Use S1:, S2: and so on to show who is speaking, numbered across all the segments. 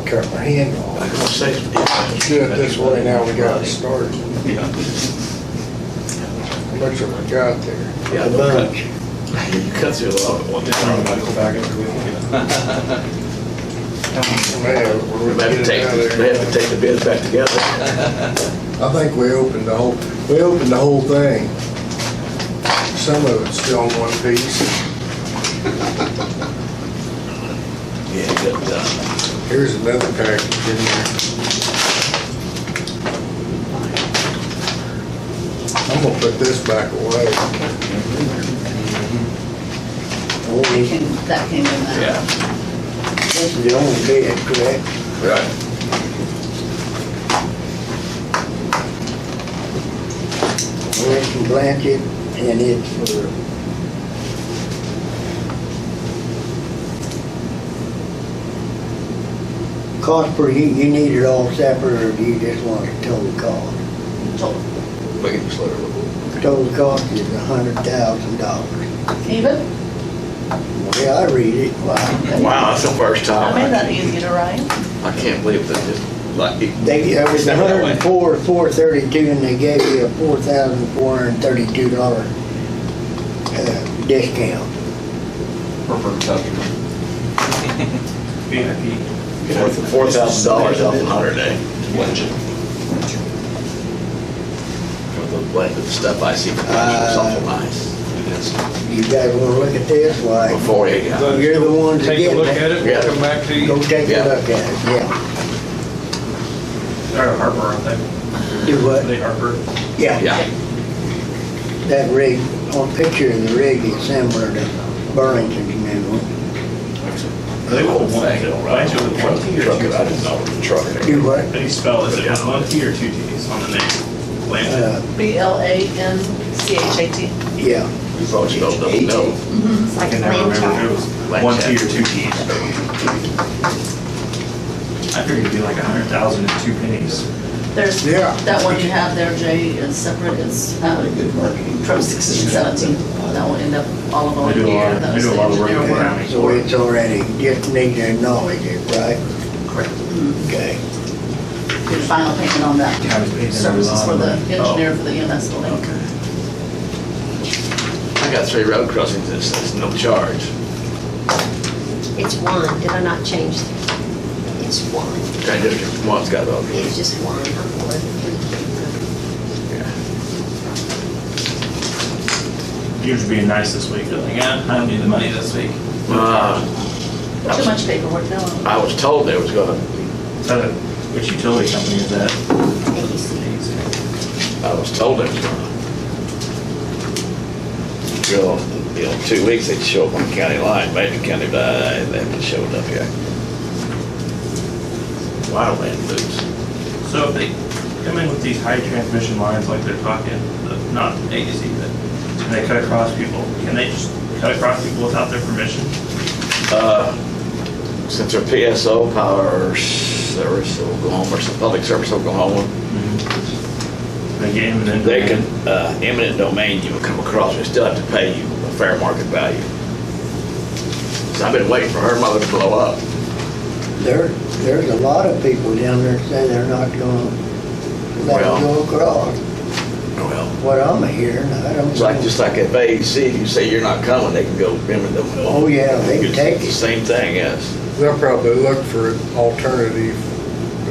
S1: cut my hand off.
S2: I'll say it.
S1: Should this way now, we got it started.
S2: Yeah.
S1: How much have I got there?
S2: Yeah,
S3: The
S2: no cut.
S3: bunch.
S2: You cut through a lot of it one
S3: I'm gonna
S2: time.
S3: go back and
S1: Man, we're
S2: They have
S1: getting
S2: to take,
S1: out of
S2: they have to
S1: there.
S2: take the bids back together.
S1: I think we opened the whole, we opened the whole thing. Some of it's still in one piece.
S2: Yeah, but, uh,
S1: Here's another package in there. I'm gonna put this back away.
S4: That came that came in that.
S2: yeah.
S1: This is the only bid, correct?
S2: Right.
S1: We're from Blanchard, and it's for...
S5: Cost per, you, you need it all separate, or do you just want the total cost?
S4: Told-
S2: Make it slower a little bit.
S5: Total cost is a hundred thousand dollars.
S4: Even?
S5: Yeah, I read it, wow.
S2: Wow, that's the first
S4: I
S3: Oh.
S2: time.
S4: made that easy to write.
S2: I can't believe that just, like, it-
S5: They, there was
S2: It's
S5: a
S2: never that
S5: hundred
S2: way.
S5: and four, four thirty-two, and they gave you a four thousand four hundred and thirty-two dollar, uh, discount.
S3: Preferred customer. VIP.
S2: Four thousand dollars off a hundred day. With the length of stuff I see, it's awful nice.
S5: You guys wanna look at this, why,
S2: Before you got.
S5: you're the ones that
S3: Take a
S5: get
S3: look at
S5: it.
S3: it, we'll come back to you.
S5: Go take a
S2: Yeah.
S5: look at it, yeah.
S3: They're Harper, aren't they?
S5: Do
S3: Are
S5: what?
S3: they Harper?
S5: Yeah,
S2: Yeah,
S5: that rig, on picture of the rig is similar to Burlington's new one.
S3: They were one
S2: thing,
S3: thing, right? It was one T or
S2: Truck,
S3: two
S2: I
S3: Ts.
S2: didn't know it was a truck.
S5: Do what?
S3: How do you spell, is it one T or two Ts on the name? Blanchard.
S5: Uh,
S4: B L A N C H A T.
S5: yeah,
S2: We thought you know, don't know.
S6: It's like
S3: I never remember if it
S6: a
S3: was one T or two Ts. I figured it'd be like a hundred thousand and two pennies.
S4: There's,
S1: Yeah.
S4: that one you have there, Jay, is separate, it's, uh, from sixteen seventeen. That will end up all of them
S3: They do a lot
S4: here,
S3: of- they
S4: that's
S3: do a
S4: the
S3: lot of work
S4: engineer
S3: in
S4: work.
S3: county.
S5: so it's already, just need to acknowledge it, right?
S4: Correct.
S5: Okay.
S4: Your final payment on that. Services for the
S3: Oh.
S4: engineer for the EMS building.
S2: I got three road crossings, it's, it's no charge.
S6: It's one, did I not change? It's one,
S2: Okay, District One's got all these.
S6: it's just one, not one.
S3: Yours being nice this week, like, yeah, I don't need the money this week.
S2: Uh,
S4: Too much paperwork, no.
S2: I was told there was gonna,
S3: So, which utility company is that?
S6: ABC.
S2: I was told there was gonna. Well, you know, two weeks they'd show up on the county line, Major County, but they haven't showed up yet. Wildland boots.
S3: So if they come in with these high transmission lines like they're talking, the- not AC, but and they cut across people, can they just cut across people without their permission?
S2: Uh, Since their PSO power service, Oklahoma, or some public service Oklahoma,
S3: They get him and then.
S2: they can, uh, eminent domain, you will come across, they still have to pay you a fair market value. So I've been waiting for her mother to blow up.
S5: There, there's a lot of people down there say they're not gonna let
S2: Well.
S5: it go across,
S2: Well.
S5: what I'm hearing, I don't
S2: It's like,
S5: know.
S2: just like at AEC, if you say you're not coming, they can go eminent domain.
S5: Oh, yeah, they can take
S2: It's the
S5: it.
S2: Same thing, yes.
S1: They'll probably look for an alternative.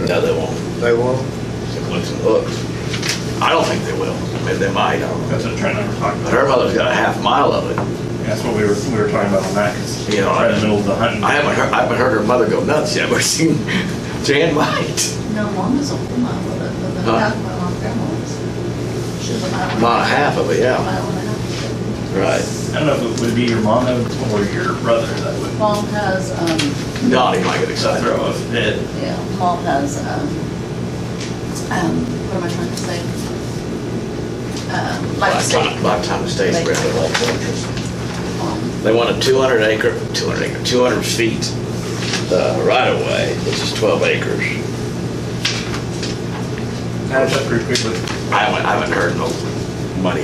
S2: No, they won't.
S1: They won't?
S2: It looks and looks. I don't think they will. I mean, they might, I don't know.
S3: That's what I'm trying to talk
S2: But
S3: about.
S2: her mother's got a half mile of it.
S3: That's what we were, we were talking about on that, because
S2: You
S3: you
S2: know,
S3: know,
S2: I-
S3: right in the middle of the hunting.
S2: I haven't heard, I haven't heard her mother go nuts yet, but I've seen Jan might.
S4: No, one is a mile, but the
S2: Huh?
S4: half mile on Fairmont is. She's a mile. and a
S2: Mile and a half of it, yeah.
S4: Mile and a half.
S2: Right.
S3: I don't know if it would be your mom or your brother that would
S4: Mom has, um,
S2: Donnie might get excited.
S3: throw a fit.
S4: yeah, mom has, um, um, what am I trying to say? Um,
S2: By
S4: like
S2: the
S4: state.
S2: time- by the time the state's
S4: Like-
S2: ready.
S4: Um,
S2: They want a 200 acre, 200 acre, 200 feet uh, right of way, which is 12 acres.
S3: Kind of pretty quickly.
S2: I haven't, I haven't heard no money.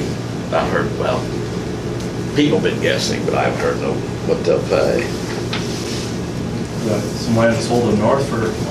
S2: I've heard, well, people been guessing, but I haven't heard no, what they'll pay.
S3: uh, Some land sold them north for